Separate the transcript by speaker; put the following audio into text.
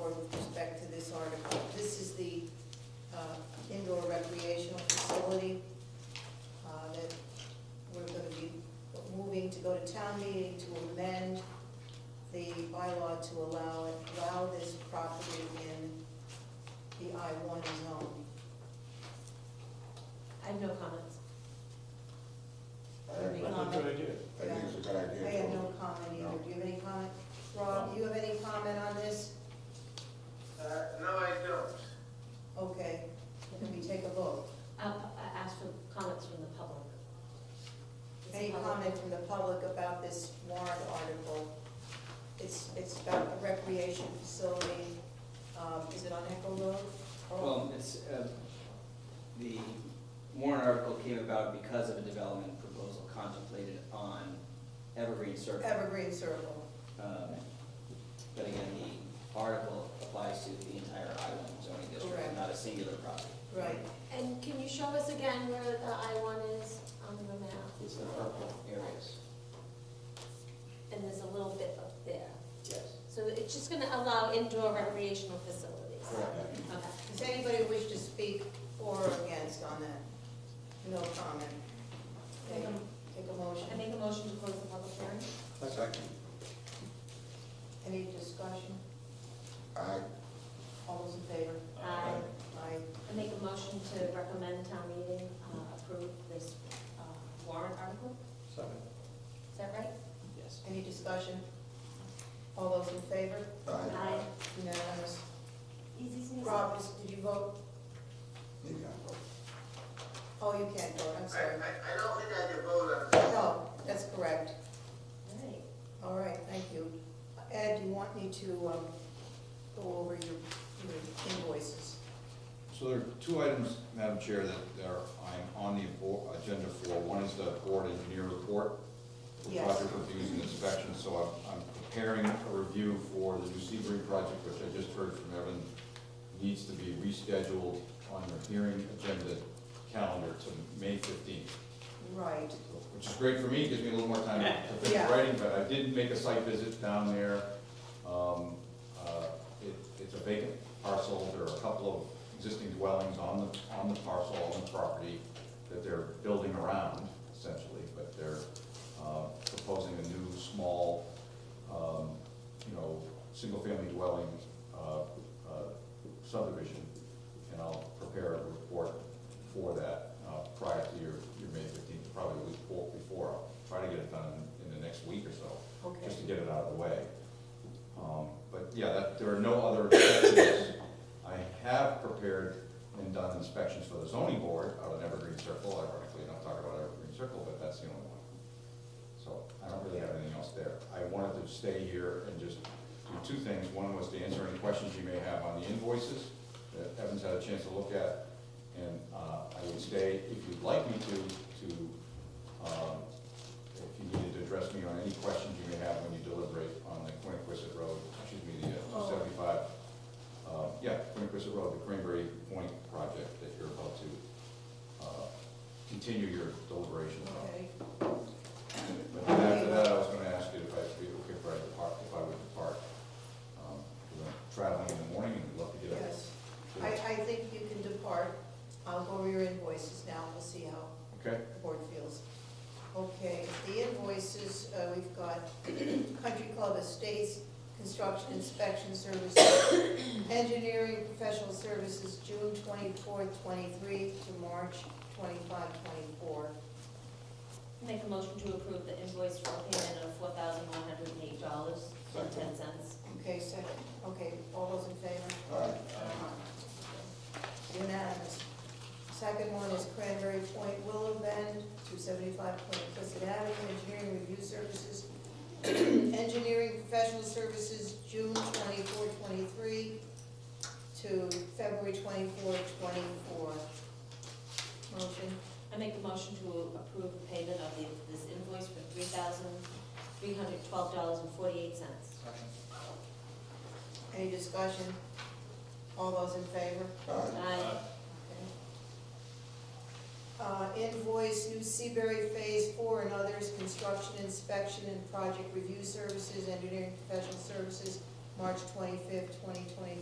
Speaker 1: uh, uh, I one zone.
Speaker 2: I have no comments.
Speaker 1: Uh,
Speaker 2: I
Speaker 1: any
Speaker 2: think
Speaker 3: That's a
Speaker 1: comment?
Speaker 3: good idea.
Speaker 1: I think
Speaker 3: it's a
Speaker 1: I have no comment either. Do you have any comment? Rob, do you have any comment on this?
Speaker 4: Uh, no, I don't.
Speaker 1: Okay, can we take a vote?
Speaker 2: I'll, I ask for comments from the public. Is the
Speaker 1: Any
Speaker 2: public-
Speaker 1: comment from the public about this warrant article? It's, it's about the recreation facility, um, is it on Echo Road? Or-
Speaker 5: Well, it's, uh, the warrant article came about because of a development proposal contemplated on Evergreen Circle.
Speaker 1: Evergreen Circle.
Speaker 5: Um, But again, the article applies to the entire island zoning
Speaker 1: Correct.
Speaker 5: district, not a singular property.
Speaker 1: Right.
Speaker 6: And can you show us again where the I one is on the map?
Speaker 5: It's the purple areas.
Speaker 6: And there's a little bit up there.
Speaker 5: Yes.
Speaker 6: So it's just gonna allow indoor recreational facilities.
Speaker 5: Correct.
Speaker 6: Okay.
Speaker 1: Does anybody wish to speak for or against on that? No comment. Okay, Take a
Speaker 2: I
Speaker 1: motion.
Speaker 2: make a motion to close the public hearing.
Speaker 4: Second.
Speaker 1: Any discussion?
Speaker 4: Aye.
Speaker 1: All those in favor?
Speaker 2: Aye.
Speaker 1: Aye.
Speaker 2: I make a motion to recommend town meeting uh, approve this uh, warrant article.
Speaker 3: Second.
Speaker 2: Is that right?
Speaker 5: Yes.
Speaker 1: Any discussion? All those in favor?
Speaker 2: Aye.
Speaker 1: Unanimous.
Speaker 2: Easy sneeze.
Speaker 1: Rob, is- did you vote? Oh, you can't vote, I'm
Speaker 4: I, I,
Speaker 1: sorry.
Speaker 4: I don't think I can vote on this.
Speaker 1: No, that's correct.
Speaker 2: All right.
Speaker 1: All right, thank you. Ed, you want me to um, go over your your invoices?
Speaker 7: So there are two items, Madam Chair, that that are, I'm on the abo- agenda for. One is the board engineer report. for
Speaker 1: Yes.
Speaker 7: Project reviews and inspections, so I'm, I'm preparing a review for the new Sebring project, which I just heard from Evan, needs to be rescheduled on your hearing agenda calendar to May fifteenth,
Speaker 1: Right,
Speaker 7: which is great for me, gives me a little more time to
Speaker 1: Yeah.
Speaker 7: finish writing, but I did make a site visit down there. Um, uh, it, it's a vacant parcel, there are a couple of existing dwellings on the, on the parcel, on the property that they're building around essentially, but they're, uh, proposing a new small, um, you know, single-family dwelling, uh, uh, subdivision. And I'll prepare a report for that, uh, prior to your, your May fifteenth, probably the week before- before, I'll try to get it done in the next week or so
Speaker 1: okay.
Speaker 7: just to get it out of the way. Um, But yeah, that, there are no other inspections. I have prepared and done inspections for the zoning board out of Evergreen Circle, ironically, don't talk about Evergreen Circle, but that's the only one. So I don't really have anything else there. I wanted to stay here and just do two things. One was to answer any questions you may have on the invoices that Evan's had a chance to look at. And uh, I would stay, if you'd like me to, to um, if you needed to address me on any questions you may have when you deliberate on the Quiniquisette Road, excuse me, the
Speaker 1: Oh.
Speaker 7: two seventy-five, uh, yeah, Quiniquisette Road, the Cranberry Point project that you're about to, uh, continue your deliberation on.
Speaker 1: Okay,
Speaker 7: But then after that, I was gonna ask you if I'd be okay if I depart, if I would depart. Um, 'cause I'm traveling in the morning and would love to get up.
Speaker 1: yes. I, I think you can depart. I'll go over your invoices now, we'll see how
Speaker 7: Okay,
Speaker 1: the board feels. Okay, the invoices, uh, we've got Country Club Estates, construction inspection services, engineering professional services, June twenty-fourth, twenty-three to March twenty-five, twenty-four.
Speaker 2: Make a motion to approve the invoice for payment of four thousand one hundred and eight dollars and ten cents.
Speaker 1: Okay, second, okay, all those in favor? Unanimous. Second one is Cranberry Point Willow Bend, two seventy-five Point Pleasant Avenue, engineering review services, engineering professional services, June twenty-four, twenty-three to February twenty-four, twenty-four. Motion,
Speaker 2: I make a motion to approve the payment of the, this invoice for three thousand three hundred twelve dollars and forty-eight cents.
Speaker 1: any discussion? All those in favor?
Speaker 2: Aye.
Speaker 1: Uh, Invoice New Seabury Phase Four and others, construction inspection and project review services, engineering professional services, March twenty-fifth, twenty twenty